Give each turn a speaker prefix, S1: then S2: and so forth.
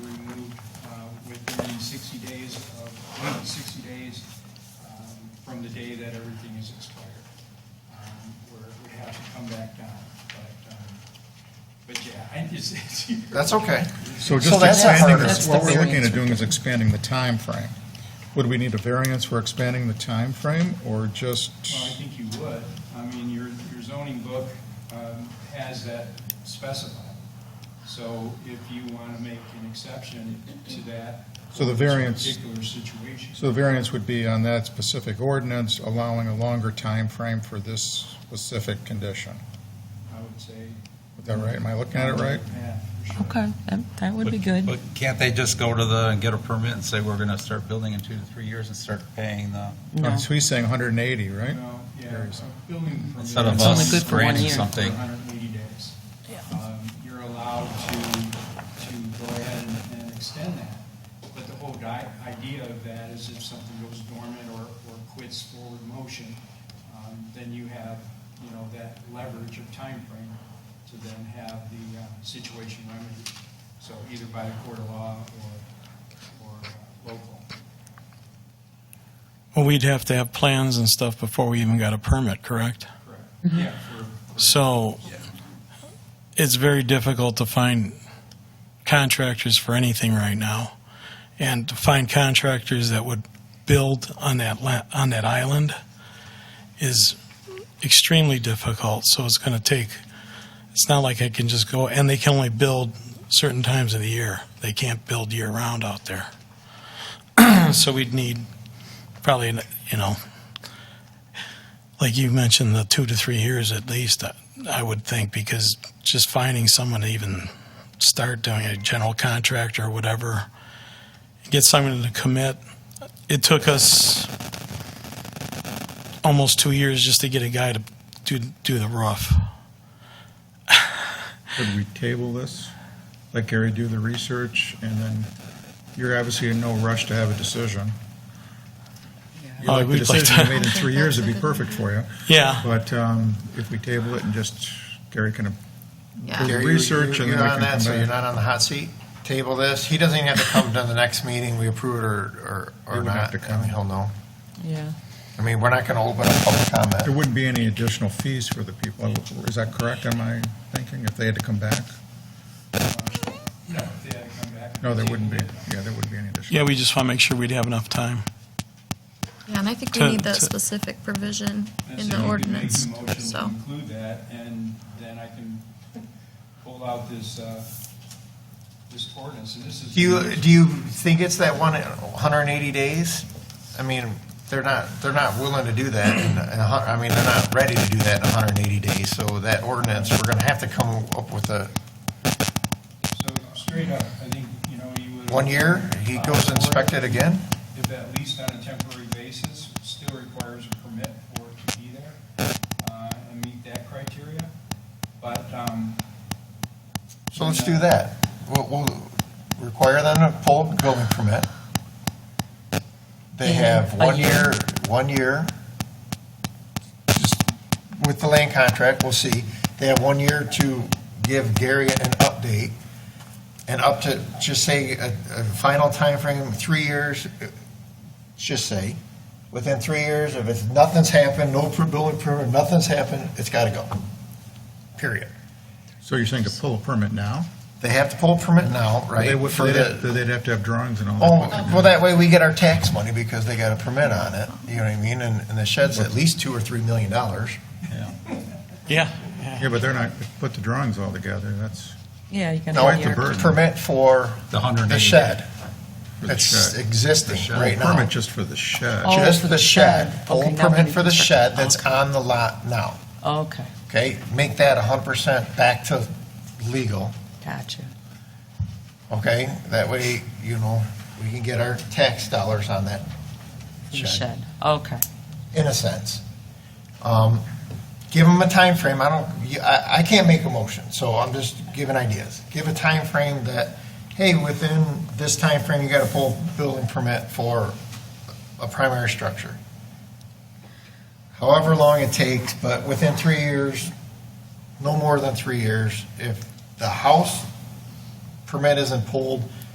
S1: uh, within sixty days of, sixty days um, from the day that everything is expired. um, Where we have to come back down, but, um, but yeah, I just, it's,
S2: That's okay. So
S3: So just
S2: that's a
S3: expanding,
S2: hurdle.
S3: this- what
S2: That's the
S3: we're looking
S2: variance
S3: at doing is expanding the time frame. Would we need a variance for expanding the time frame, or just,
S1: Well, I think you would. I mean, your, your zoning book um, has that specified. So if you want to make an exception to that.
S3: So the variance-
S1: Particular situation.
S3: so the variance would be on that specific ordinance, allowing a longer time frame for this specific condition?
S1: I would say.
S3: Is that right? Am I looking at it right?
S1: Yeah, for sure.
S4: Okay, that, that would be good.
S5: But can't they just go to the, and get a permit and say, we're going to start building in two to three years and start paying the,
S4: No.
S3: So he's saying 180, right?
S1: No, yeah,
S3: Various.
S1: a building permit.
S5: instead of
S4: It's only
S5: us
S4: good for one
S5: granting
S4: year.
S1: For
S5: something?
S1: 180 days. Um, You're allowed to, to go ahead and- and extend that. But the whole di- idea of that is if something goes dormant or, or quits forward motion, um, then you have, you know, that leverage of time frame to then have the uh, situation remedied. So either by the court of law or, or uh, local.
S6: Well, we'd have to have plans and stuff before we even got a permit, correct?
S1: Correct. Yeah, for,
S6: So it's very difficult to find contractors for anything right now. And to find contractors that would build on that, la- on that island is extremely difficult. So it's going to take, it's not like I can just go, and they can only build certain times of the year. They can't build year-round out there. So we'd need probably, you know, like you mentioned, the two to three years at least, I- I would think, because just finding someone to even start doing a general contractor or whatever, get someone to commit. It took us almost two years just to get a guy to do, do the roof.
S3: Could we table this, let Gary do the research, and then you're obviously in no rush to have a decision. You
S6: Uh,
S3: like the
S6: we'd like
S3: decision you
S6: to-
S3: made in three years, it'd be perfect for you.
S6: Yeah.
S3: But um, if we table it and just, Gary can do the
S2: Gary, you-
S3: research
S2: you-
S3: and then we
S2: You're
S3: can come back.
S2: on that, so you're not on the hot seat. Table this. He doesn't even have to come to the next meeting. We approve it or, or,
S3: He
S2: or
S3: wouldn't have
S2: not.
S3: to
S2: I mean,
S3: come.
S2: he'll know.
S4: Yeah.
S2: I mean, we're not going to open a public
S3: There
S2: comment.
S3: wouldn't be any additional fees for the people, is that correct, am I thinking, if they had to come back?
S1: no, if they had to come back.
S3: No, there wouldn't be, yeah, there wouldn't be any additional.
S6: Yeah, we just want to make sure we'd have enough time.
S7: Yeah, and I think we
S6: To-
S7: need that
S6: to-
S7: specific provision
S1: And
S7: in
S1: so you
S7: the
S1: can make
S7: ordinance,
S1: a motion to
S7: so.
S1: Include that, and then I can pull out this, uh, this ordinance, and this is.
S2: Do you, do you think it's that one, 180 days? I mean, they're not, they're not willing to do that. in- in a hun- I mean, they're not ready to do that in 180 days. So that ordinance, we're going to have to come up with a,
S1: So straight up, I think, you know, you would.
S2: one year, he goes
S1: Uh, or
S2: inspect it again?
S1: If at least on a temporary basis, still requires a permit for it to be there, uh, and meet that criteria, but, um.
S2: So let's do that. We'll, we'll require them to pull a building permit. They have
S4: Yeah, a
S2: one
S4: year.
S2: year, one year. Just With the land contract, we'll see. They have one year to give Gary an update. And up to, just say, a, a final timeframe, three years, uh, just say, within three years, if it's, nothing's happened, no per- building permit, nothing's happened, it's gotta go. Period.
S3: So you're saying to pull a permit now?
S2: They have to pull a permit now, right?
S3: They would,
S2: for
S3: they'd
S2: the-
S3: have- they'd have to have drawings and all
S2: Oh,
S3: that.
S2: well, that way we get our tax money because they got a permit on it, you know what I mean? And, and the shed's at least two or three million dollars.
S6: Yeah.
S3: Yeah, but they're not, put the drawings all together, that's,
S4: Yeah, you can.
S2: No,
S4: have
S2: it's
S3: a
S4: your-
S3: bird.
S2: a permit for
S5: The 180.
S2: the shed.
S3: for the
S2: It's
S3: shed.
S2: existing right now.
S3: Permit just for the shed.
S4: Oh,
S2: Just for the shed,
S4: shed.
S2: pull
S4: Okay,
S2: a
S4: now
S2: permit
S4: we
S2: for the
S4: need to-
S2: shed that's on the lot now,
S4: Okay,
S2: okay? Make that hundred percent back to legal,
S4: gotcha.
S2: okay? That way, you know, we can get our tax dollars on that
S4: For the
S2: shed.
S4: shed. Okay.
S2: in a sense. Um, Give them a time frame. I don't, you- I, I can't make a motion, so I'm just giving ideas. Give a time frame that, hey, within this time frame, you got to pull building permit for a primary structure. However long it takes, but within three years, no more than three years, if the house permit isn't pulled